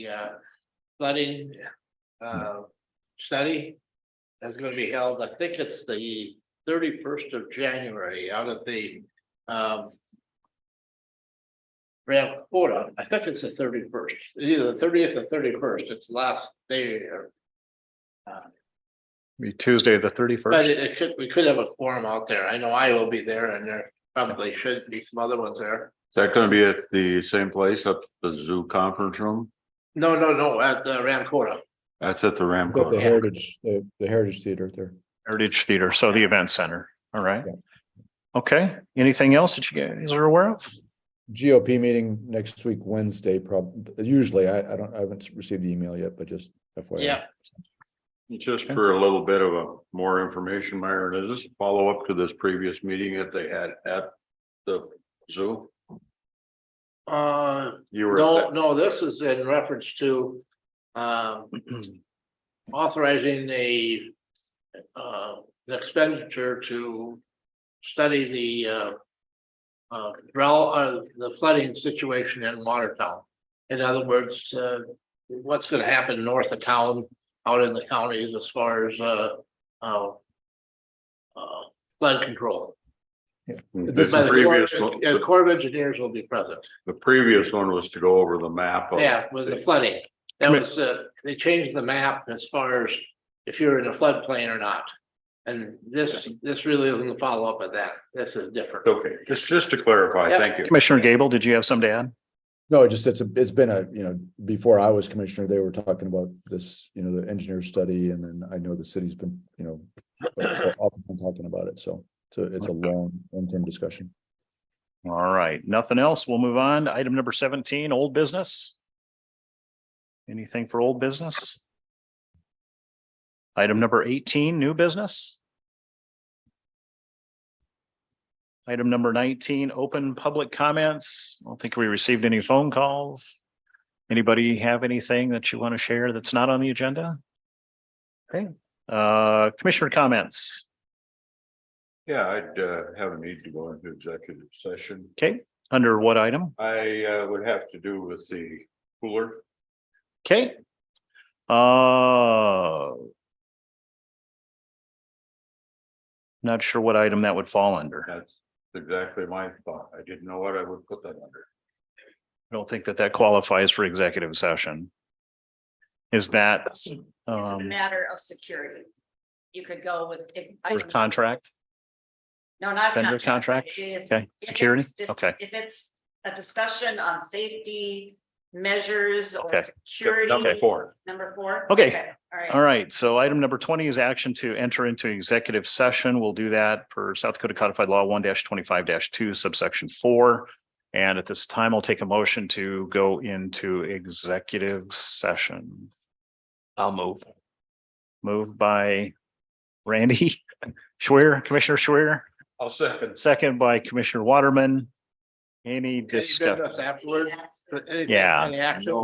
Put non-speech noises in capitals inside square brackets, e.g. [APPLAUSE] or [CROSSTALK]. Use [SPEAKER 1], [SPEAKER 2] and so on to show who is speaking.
[SPEAKER 1] uh, flooding, uh, study. That's gonna be held, I think it's the thirty-first of January out at the, um. Ram Quarter, I think it's the thirty-first, either the thirtieth or thirty-first, it's last day or
[SPEAKER 2] Be Tuesday, the thirty
[SPEAKER 1] But
[SPEAKER 2] first.
[SPEAKER 1] it- it could, we could have a forum out there. I know I will be there and there probably should be some other ones there.
[SPEAKER 3] that gonna be at the same place up the zoo conference room?
[SPEAKER 1] No, no, no, at uh, the Ramcota.
[SPEAKER 3] That's at the
[SPEAKER 4] Got the
[SPEAKER 3] Ramco.
[SPEAKER 4] Heritage, the the Heritage Theater right there.
[SPEAKER 2] Heritage Theater, so the event center. All right.
[SPEAKER 4] Yeah.
[SPEAKER 2] Okay, anything else that you guys are aware of?
[SPEAKER 4] GOP meeting next week, Wednesday, prob, usually, I, I don't, I haven't received the email yet, but just FYI.
[SPEAKER 1] Yeah.
[SPEAKER 3] Just for a little bit of a more information, Myron, is this a follow up to this previous meeting that they had at the zoo?
[SPEAKER 1] Uh,
[SPEAKER 3] You were. at
[SPEAKER 1] no,
[SPEAKER 3] that-
[SPEAKER 1] no, this is in reference to um authorizing a uh an expenditure to study the uh uh, rel- uh, the flooding situation in Watertown. In other words, uh, what's gonna happen north of town, out in the counties as far as uh uh uh, flood control.
[SPEAKER 4] This
[SPEAKER 1] By
[SPEAKER 3] The
[SPEAKER 1] the
[SPEAKER 3] previous,
[SPEAKER 1] Corps-
[SPEAKER 3] one-
[SPEAKER 1] yeah,
[SPEAKER 3] the-
[SPEAKER 1] Corps of Engineers will be present.
[SPEAKER 3] the previous one was to go over the map. of-
[SPEAKER 1] Yeah, was the flooding. That was, uh, they changed the map as far as if you're in a floodplain or not. And this, this really isn't the follow-up of that. This is different.
[SPEAKER 3] Okay, just, just to clarify,
[SPEAKER 1] Yeah.
[SPEAKER 3] thank you.
[SPEAKER 2] Commissioner Gable, did you have something to add?
[SPEAKER 4] No, it just, it's, a it's been a, you know, before I was commissioner, they were talking about this, you know, the engineer study, and then I know the city's been, you know, [COUGHS] up and talking about it, so, so it's a long, long-term discussion.
[SPEAKER 2] All right, nothing else. We'll move on to item number seventeen, old business. Anything for old business? Item number eighteen, new business. Item number nineteen, open public comments. I don't think we received any phone calls. Anybody have anything that you want to share that's not on the agenda? Okay, uh, commissioner comments.
[SPEAKER 3] Yeah, I'd uh, have a need to go into executive session.
[SPEAKER 2] Okay, under what item?
[SPEAKER 3] I uh, would have to do with the cooler.
[SPEAKER 2] Okay. Uh. Not sure what item that would fall under. I
[SPEAKER 3] That's exactly my thought. I didn't know what I would put that under.
[SPEAKER 2] don't think that that qualifies for executive session. Is that,
[SPEAKER 5] It's a
[SPEAKER 2] um,
[SPEAKER 5] matter of security. You could go with. if- I
[SPEAKER 2] for
[SPEAKER 5] can-
[SPEAKER 2] contract?
[SPEAKER 5] No, not.
[SPEAKER 2] vendor contract?
[SPEAKER 5] It is-
[SPEAKER 2] Okay.
[SPEAKER 5] if
[SPEAKER 2] Security?
[SPEAKER 5] it's dis-
[SPEAKER 2] Okay.
[SPEAKER 5] If it's a discussion on safety measures
[SPEAKER 2] Okay.
[SPEAKER 5] or
[SPEAKER 3] Yep,
[SPEAKER 5] security.
[SPEAKER 3] Number four.
[SPEAKER 5] Number four.
[SPEAKER 2] Okay.
[SPEAKER 5] All right.
[SPEAKER 2] All right, so item number twenty is action to enter into executive session. We'll do that per South Dakota Codified Law one twenty-five two subsection four. And at this time, I'll take a motion to go into executive session. I'll move. Moved by Randy [LAUGHS] Schwer, Commissioner Schwer,
[SPEAKER 3] I'll second.
[SPEAKER 2] second by Commissioner Waterman. Any
[SPEAKER 1] Any business
[SPEAKER 2] discussion?
[SPEAKER 1] Afterwards. but anything-
[SPEAKER 2] Yeah.
[SPEAKER 1] any action?